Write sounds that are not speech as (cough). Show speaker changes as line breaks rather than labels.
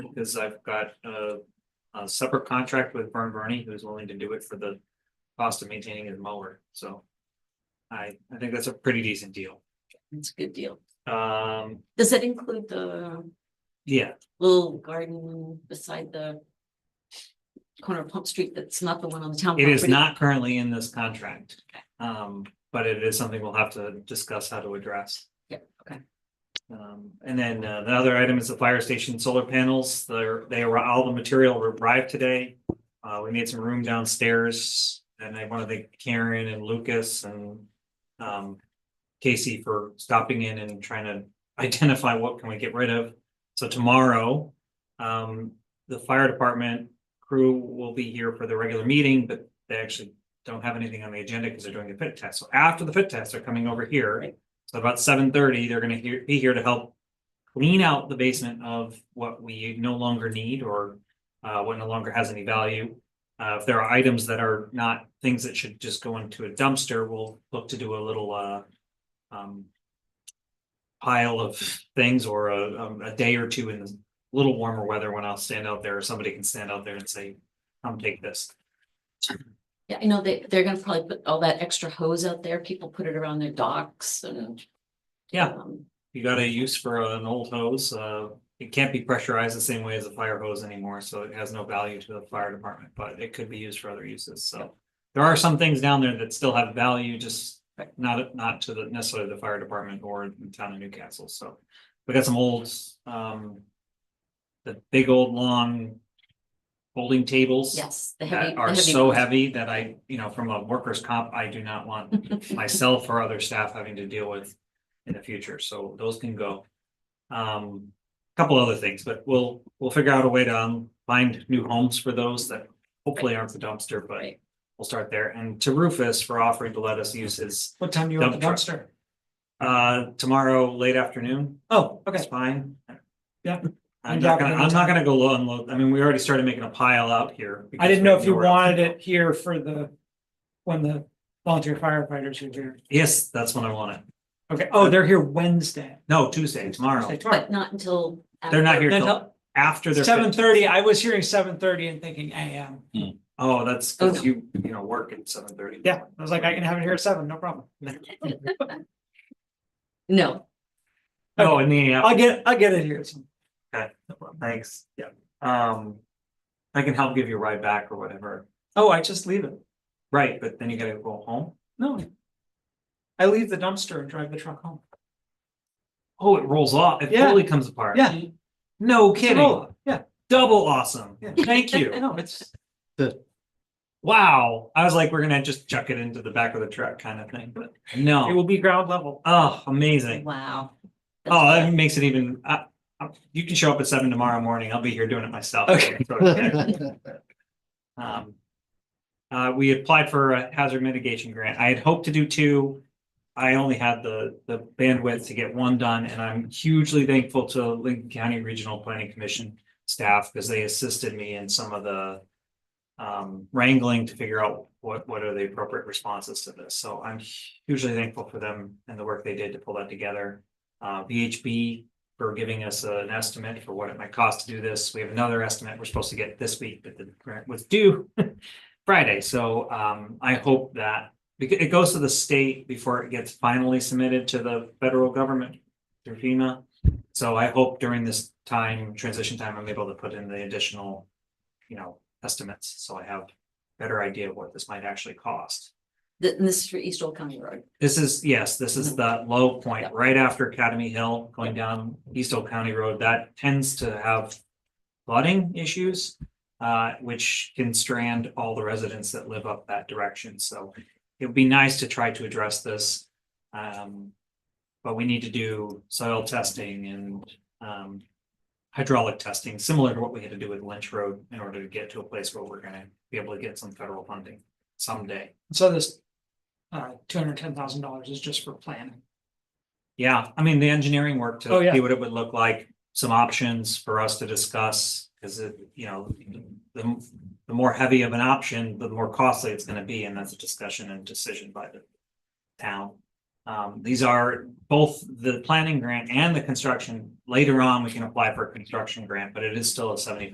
because I've got a, a separate contract with Vern Bernie, who's willing to do it for the cost of maintaining his mower, so. I, I think that's a pretty decent deal.
It's a good deal.
Um,
Does that include the
yeah,
little garden beside the corner of Pump Street that's not the one on the town?
it is
property?
not currently in this contract. Um, but it is something we'll have to discuss how to address.
Yeah, okay.
Um, and then uh, the other item is the fire station solar panels. They're, they were, all the material were arrived today. Uh, we made some room downstairs and I want to thank Karen and Lucas and um, Casey for stopping in and trying to (laughs) identify what can we get rid of. So tomorrow, um, the fire department crew will be here for the regular meeting, but they actually don't have anything on the agenda because they're doing the fit test. So after the fit test, they're coming over here. So about seven thirty, they're gonna hear, be here to help clean out the basement of what we no longer need or uh, what no longer has any value. Uh, if there are items that are not things that should just go into a dumpster, we'll look to do a little uh, um, pile of things or a, um, a day or two in the little warmer weather when I'll stand out there, or somebody can stand out there and say, come take this.
Yeah, I know they, they're gonna probably put all that extra hose out there. People put it around their docks and.
Yeah.
um,
You got a use for an old hose, uh, it can't be pressurized the same way as a fire hose anymore, so it has no value to the fire department, but it could be used for other uses, so. There are some things down there that still have value, just not, not to the necessarily the fire department or the town of Newcastle, so. We got some old, um. The big old long. Folding tables.
Yes. the heavy-
That
the
are so
ones.
heavy that I, you know, from a workers' comp, I do not want
(laughs)
myself or other staff having to deal with in the future, so those can go. Um, couple other things, but we'll, we'll figure out a way to um, find new homes for those that hopefully aren't the dumpster, but
Right.
we'll start there. And to Rufus for offering to let us use his,
What time do you want the
Dump
dumpster?
uh, tomorrow, late afternoon.
Oh,
It's
okay.
fine.
Yeah.
I'm not gonna, I'm not gonna go low and load. I mean, we already started making a pile out here.
I didn't know if you
because we have nowhere else
wanted
to go.
it here for the, when the volunteer firefighters are here.
Yes, that's when I want it.
Okay, oh, they're here Wednesday.
No, Tuesday, tomorrow.
Thursday, tomorrow.
But not until.
They're not
after-
here
Then
till after they're.
Seven thirty, I was hearing seven thirty and thinking AM.
Oh, that's
Oh,
because
no.
you, you know, work at seven thirty.
Yeah, I was like, I can have it here at seven, no problem.
No,
Oh, in the, app.
I'll get, I'll get it here. at some-
Okay.
No problem.
thanks.
Yeah.
Um, I can help give you a ride back or whatever.
Oh, I just leave it.
Right, but then you gotta go home.
No. I leave the dumpster and drive the truck home.
Oh, it rolls off. It
Yeah.
totally comes apart.
Yeah.
No
It's a
kidding.
roll-up. Yeah,
Double awesome.
Yeah.
Thank you.
(laughs) no, it's,
Wow. I was like, we're gonna just chuck it into the back of the truck kind of thing, but
it
no.
will be ground level.
Oh, amazing.
wow. That's
Oh,
good.
that makes it even, I, I, you can show up at seven tomorrow morning. I'll be here doing it myself.
Okay.
(laughs) So, okay. Um. Uh, we applied for a hazard mitigation grant. I had hoped to do two. I only had the, the bandwidth to get one done and I'm hugely thankful to Lincoln County Regional Planning Commission staff because they assisted me in some of the um, wrangling to figure out what, what are the appropriate responses to this. So I'm hugely thankful for them and the work they did to pull that together. Uh, VHB for giving us an estimate for what it might cost to do this. We have another estimate we're supposed to get this week, but the grant was due (laughs) Friday. So um, I hope that because it goes to the state before it gets finally submitted to the federal government through FEMA. So I hope during this time, transition time, I'm able to put in the additional, you know, estimates. So I have better idea of what this might actually cost.
Th- This is for East Old County Road.
This is, yes, this is the low point, right after Academy Hill, going down East Oak County Road, that tends to have flooding issues, uh, which can strand all the residents that live up that direction, so it would be nice to try to address this. Um, but we need to do soil testing and, um, hydraulic testing, similar to what we had to do with Lynch Road in order to get to a place where we're gonna be able to get some federal funding someday.
So this, uh, two hundred ten thousand dollars is just for planning.
Yeah, I mean, the engineering work
Oh,
to
yeah.
see what it would look like, some options for us to discuss, because it, you know, the, the more heavy of an option, the more costly it's gonna be, and that's a discussion and decision by the town. Um, these are both the planning grant and the construction. Later on, we can apply for a construction grant, but it is still a seventy-five